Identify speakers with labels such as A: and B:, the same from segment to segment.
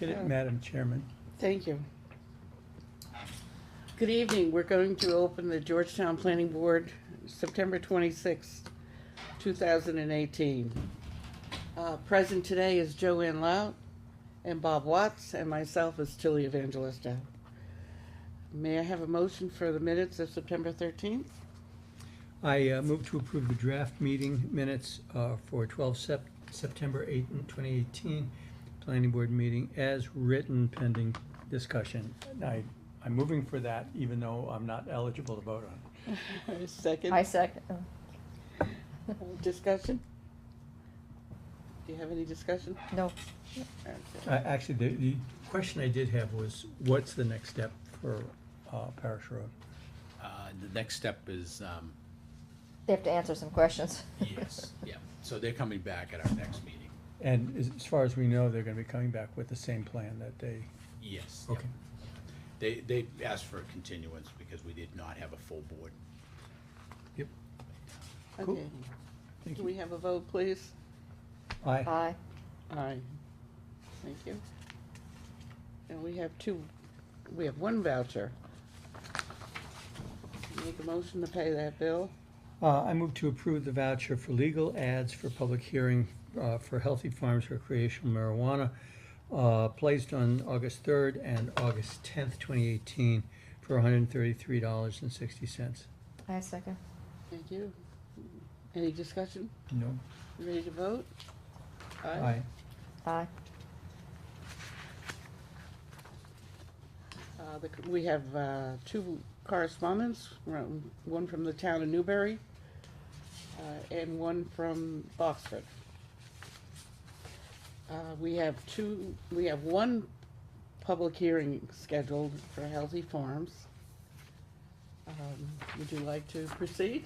A: Get it, Madam Chairman.
B: Thank you. Good evening. We're going to open the Georgetown Planning Board, September twenty-sixth, two thousand and eighteen. Uh, present today is Joanne Lout and Bob Watts, and myself is Tilly Evangelista. May I have a motion for the minutes of September thirteenth?
A: I uh, move to approve the draft meeting minutes uh, for 12 Sep- September 8, and 2018, Planning Board meeting as written pending discussion. I, I'm moving for that even though I'm not eligible to vote on it.
B: Second?
C: I second,
B: Discussion? Do you have any discussion?
C: oh, no,
B: Okay.
A: I- Uh, Actually, the, the question I did have was, what's the next step for uh, Parish Road?
D: Uh, The next step is, um,
C: they have to answer some questions.
D: yes, yeah, so they're coming back at our next meeting,
A: And as- as far as we know, they're going to be coming back with the same plan that they,
D: yes. yeah.
A: okay.
D: They, they asked for a continuance because we did not have a full board.
A: Yep, Cool.
B: Okay.
A: thank
B: Do
A: you.
B: we have a vote, please?
A: Aye.
C: Aye,
B: Aye. Thank you. And we have two, we have one voucher. Make a motion to pay that bill.
A: Uh, I move to approve the voucher for legal ads for public hearing uh, for Healthy Farms recreational marijuana, uh, placed on August 3rd and August 10th, 2018, for $133.60.
C: I second,
B: Thank you. Any discussion?
A: No.
B: You Ready to vote?
A: Aye.
C: aye,
B: Uh, the c- We have uh, two correspondents, one one from the town of Newbury uh, and one from Boxford. Uh, We have two, we have one public hearing scheduled for Healthy Farms. Um, Would you like to proceed?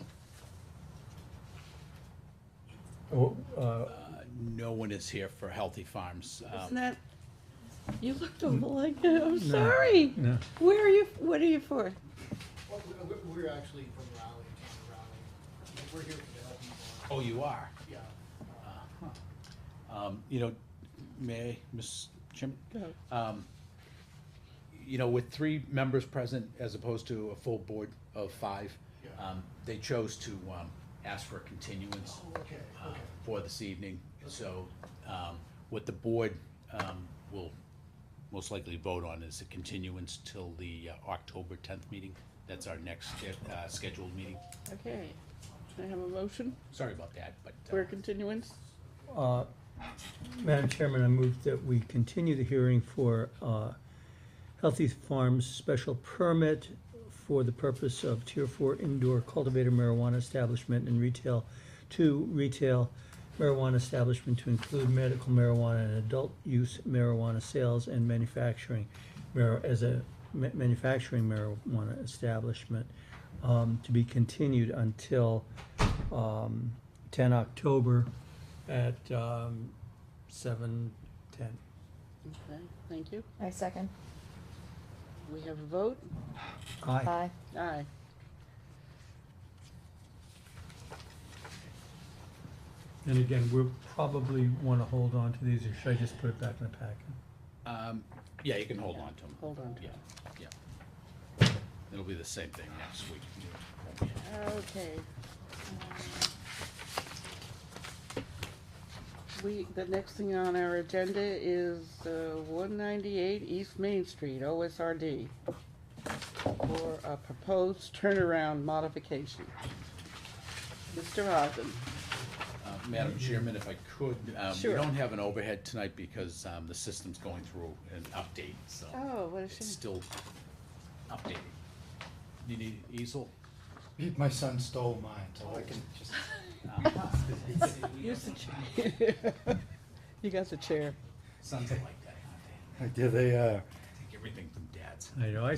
A: Oh, uh,
D: Uh, No one is here for Healthy Farms. um,
B: Isn't that, you looked over like, I'm sorry.
A: No.
B: Where are you, what are you for?
E: Well, we- we- We're actually from Raleigh, town of Raleigh. We're here for the help people.
D: Oh, you are?
E: Yeah.
D: Um, You know, may, I, Ms. Chairman?
B: Go.
D: Um, You know, with three members present as opposed to a full board of five,
E: Yeah.
D: um, they chose to um, ask for a continuance.
E: Oh, okay,
D: uh,
E: okay.
D: for this evening. So um, what the board um, will most likely vote on is a continuance till the uh, October 10th meeting. That's our next sche- uh, scheduled meeting.
B: Okay, can I have a motion
D: Sorry about that, but. uh,
B: for a continuance?
A: Uh, Madam Chairman, I move that we continue the hearing for uh, Healthy Farms special permit for the purpose of Tier 4 indoor cultivator marijuana establishment and retail, to retail marijuana establishment to include medical marijuana and adult use marijuana sales and manufacturing, mar- as a ma- manufacturing marijuana establishment, um, to be continued until um, 10 October at um, 7:10.
B: Okay, thank you.
C: I second,
B: We have a vote?
A: Aye.
C: aye,
B: Aye.
A: And again, we'll probably want to hold on to these, or should I just put it back in the packet?
D: um, Yeah, you can hold on to them.
B: Hold on to
D: Yeah,
B: it.
D: yeah. It'll be the same thing next week.
B: Okay. We, the next thing on our agenda is uh, one ninety-eight East Main Street, OSRD, for a proposed turnaround modification. Mr. Rosen,
D: Uh, Madam Chairman, if I could, um, we
B: Sure.
D: don't have an overhead tonight because um, the system's going through an update, so.
B: oh, what a
D: It's
B: shame.
D: still updating. You need an easel?
E: My son stole mine, so I can just.
B: Use the chair. You got the chair.
D: Sons are like that, aren't
E: Yeah, they are.
D: they? Take everything from dads.
A: I know, I